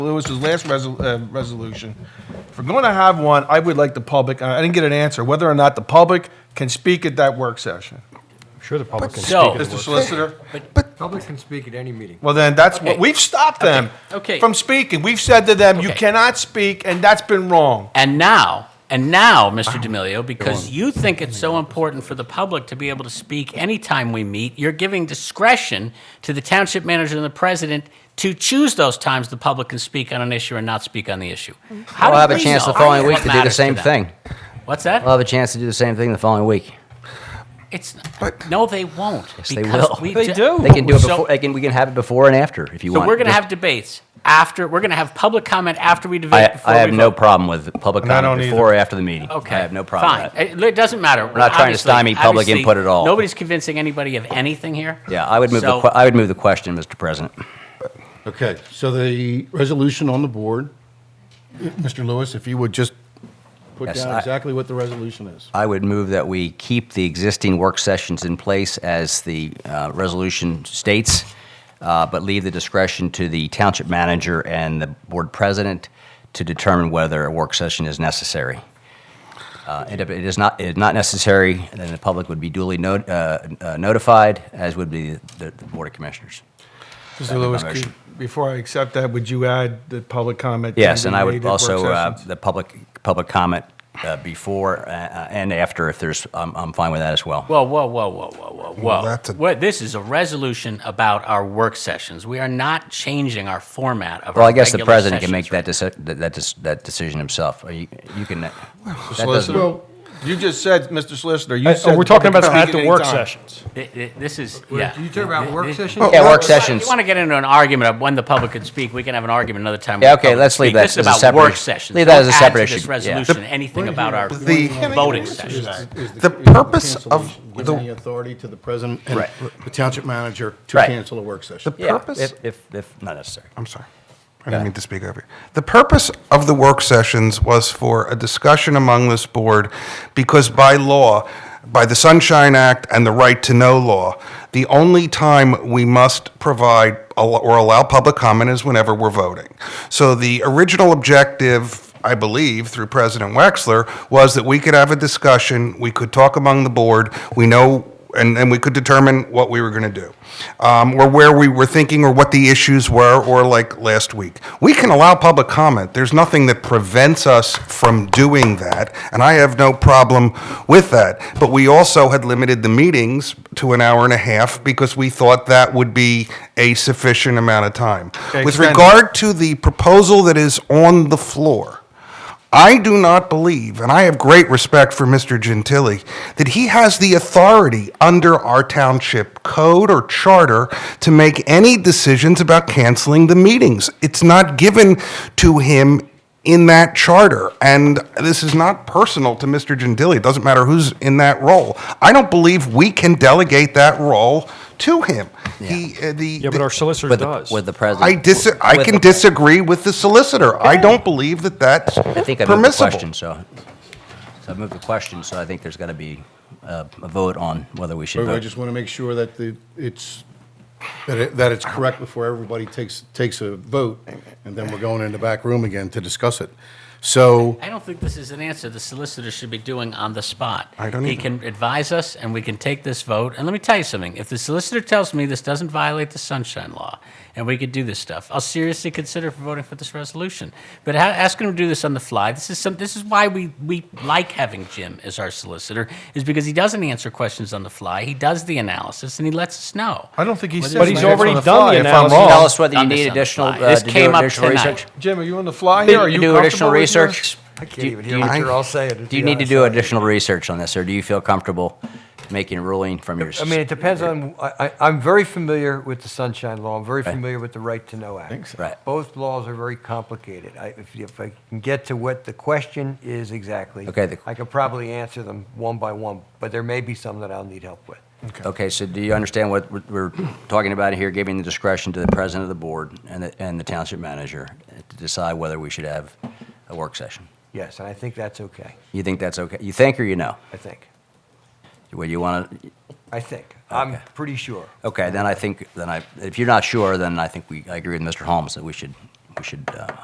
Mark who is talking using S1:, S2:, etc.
S1: Lewis's last resol- uh, resolution, if we're going to have one, I would like the public, I didn't get an answer, whether or not the public can speak at that work session.
S2: I'm sure the public can
S3: So-
S2: speak.
S1: Mr. Solicitor?
S4: Public can speak at any meeting.
S1: Well, then, that's what,
S3: Okay.
S1: we've stopped them
S3: Okay.
S1: from speaking. We've said to them, you
S3: Okay.
S1: cannot speak, and that's been wrong.
S3: And now, and now, Mr. D'Amelio, because you think it's so important for the public to be able to speak anytime we meet, you're giving discretion to the township manager and the president to choose those times the public can speak on an issue and not speak on the issue. How
S5: We'll
S3: do
S5: have a
S3: we
S5: chance
S3: know
S5: the following
S3: what
S5: week to do the
S3: matters
S5: same
S3: them?
S5: thing. Uh,
S3: What's that?
S5: We'll have a chance to do the same thing the following week.
S3: It's, no, they won't.
S5: they
S3: because
S5: will.
S3: we
S2: They
S3: ju-
S2: do.
S5: They can do it
S3: So-
S5: before, they can, we can have it before and after if you
S3: So
S5: want.
S3: we're going to have debates after, we're going to have public comment after we debate.
S5: I,
S3: before
S5: I have
S3: we
S5: no
S3: vote.
S5: problem with public
S1: And I
S5: comment
S1: don't
S5: before or after the meeting.
S3: Okay.
S5: I have no problem
S3: Fine.
S5: with
S3: It-
S5: that.
S3: It doesn't matter. We're
S5: not trying to stymie public input at all.
S3: Nobody's convincing anybody of anything here.
S5: Yeah, I would move, the
S3: So-
S5: que- I would move the question, Mr. President.
S6: Okay, so the resolution on the board, Mr. Lewis, if you would just put
S5: Yes,
S6: down
S5: I-
S6: exactly what the resolution is.
S5: I would move that we keep the existing work sessions in place as the uh, resolution states, uh, but leave the discretion to the township manager and the board president to determine whether a work session is necessary. Uh, And if it is not, it is not necessary, then the public would be duly not- uh, uh, notified, as would be the the Board of Commissioners.
S1: Mr. Lewis,
S5: my
S1: could-
S5: motion.
S1: before I accept that, would you add the public comment? to
S5: Yes,
S1: be
S5: and I
S1: made
S5: would
S1: at work
S5: also, uh,
S1: sessions?
S5: the public, public comment uh, before uh, uh, and after, if there's, I'm I'm fine with that as well.
S3: Whoa, whoa, whoa, whoa, whoa, whoa, whoa.
S7: that's a-
S3: What- this is a resolution about our work sessions. We are not changing our format of
S5: Well,
S3: our
S5: I guess the
S3: regular
S5: president can
S3: sessions.
S5: make that, deci- that, that, deci- that decision himself. Or You, you can, uh, that doesn't-
S1: Solicitor, you just said, Mr. Solicitor, you
S2: Uh,
S1: said.
S2: We're talking
S1: public
S2: about
S1: can
S2: at
S1: speak
S2: the work
S1: anytime.
S2: sessions.
S3: Th- th- This is,
S4: Wait,
S3: yeah.
S4: You talking about work sessions?
S5: Yeah, work
S3: If
S5: sessions.
S3: you want to get into an argument of when the public can speak, we can have an argument another time. when
S5: Yeah,
S3: the
S5: okay,
S3: public
S5: let's
S3: can
S5: leave
S3: speak.
S5: that
S3: This is
S5: as a
S3: about
S5: separate
S3: work
S5: issue.
S3: sessions.
S5: Leave that as a
S3: Don't add
S5: separate
S3: to this
S5: issue, yeah.
S3: resolution, anything about our
S7: The-
S3: voting sessions.
S6: Is
S7: The
S6: is
S7: purpose of
S6: cancellation,
S7: the-
S6: Giving the authority to the president and
S5: Right.
S6: the township manager to
S5: Right.
S6: cancel a work session.
S5: yeah,
S7: purpose-
S5: if, if, if not necessary.
S7: I'm sorry. I didn't mean to speak over you. The purpose of the work sessions was for a discussion among this board because by law, by the Sunshine Act and the Right to Know law, the only time we must provide al- or allow public comment is whenever we're voting. So the original objective, I believe, through President Wexler, was that we could have a discussion, we could talk among the board, we know and, and we could determine what we were going to do, um, or where we were thinking, or what the issues were, or like last week. We can allow public comment. There's nothing that prevents us from doing that, and I have no problem with that. But we also had limited the meetings to an hour and a half because we thought that would be a sufficient amount of time.
S1: Okay,
S7: With
S1: extend it.
S7: regard to the proposal that is on the floor, I do not believe, and I have great respect for Mr. Gentili, that he has the authority under our township code or charter to make any decisions about canceling the meetings. It's not given to him in that charter. And this is not personal to Mr. Gentili. It doesn't matter who's in that role. I don't believe we can delegate that role to him. He, uh, the,
S2: Yeah, but our solicitor
S5: With the,
S2: does.
S5: with the president.
S7: I dis, I
S5: with
S7: can
S5: the-
S7: disagree with the solicitor. I don't believe that that's
S5: I think I moved the question,
S7: permissible.
S5: so, so I moved the question, so I think there's got to be uh, a vote on whether we should
S6: But I
S5: vote.
S6: just want to make sure that the, it's, that it, that it's correct before everybody takes, takes a vote, and then we're going in the back room again to discuss it. So,
S3: I don't think this is an answer the solicitor should be doing on the spot.
S7: I don't
S3: He
S7: either.
S3: can advise us, and we can take this vote. And let me tell you something. If the solicitor tells me this doesn't violate the sunshine law, and we could do this stuff, I'll seriously consider voting for this resolution. But ha- asking him to do this on the fly, this is some. This is why we we like having Jim as our solicitor, is because he doesn't answer questions on the fly. He does the analysis, and he lets us know.
S1: I don't think he said.
S2: But he's
S1: that. It's on
S2: already
S1: the
S2: done
S1: fly,
S2: the
S1: if I'm
S2: analysis.
S1: wrong.
S5: Tell us whether you
S3: Done this on
S5: need
S3: the
S5: additional,
S3: fly.
S5: uh,
S3: This
S5: to do
S3: came up
S5: additional
S3: tonight.
S5: research.
S1: Jim, are you on the fly here? Are you
S5: Do additional
S1: comfortable with yours?
S5: research?
S8: I can't
S5: Do-
S8: even
S5: do
S8: hear
S5: you-
S8: what you're all saying. to
S5: Do you
S8: be
S5: need to
S8: honest.
S5: do additional research on this, or do you feel comfortable making a ruling from your?
S8: I mean, it depends on, I, I- I'm very familiar with the Sunshine Law. I'm very
S5: Right.
S8: familiar with the Right to Know Act.
S5: Right.
S8: Both laws are very complicated. I, if, if I can get to what the question is exactly,
S5: Okay, the-
S8: I could probably answer them one by one, but there may be some that I'll need help with.
S5: Okay, so do you understand what we're- we're talking about here, giving the discretion to the president of the board and the, and the township manager to decide whether we should have a work session?
S8: Yes, and I think that's okay,
S5: You think that's okay? You think or you know?
S8: I think.
S5: Well, you want to,
S8: I think. I'm pretty sure.
S5: okay, then I think, then I, if you're not sure, then I think we, I agree with Mr. Holmes that we should, we should uh,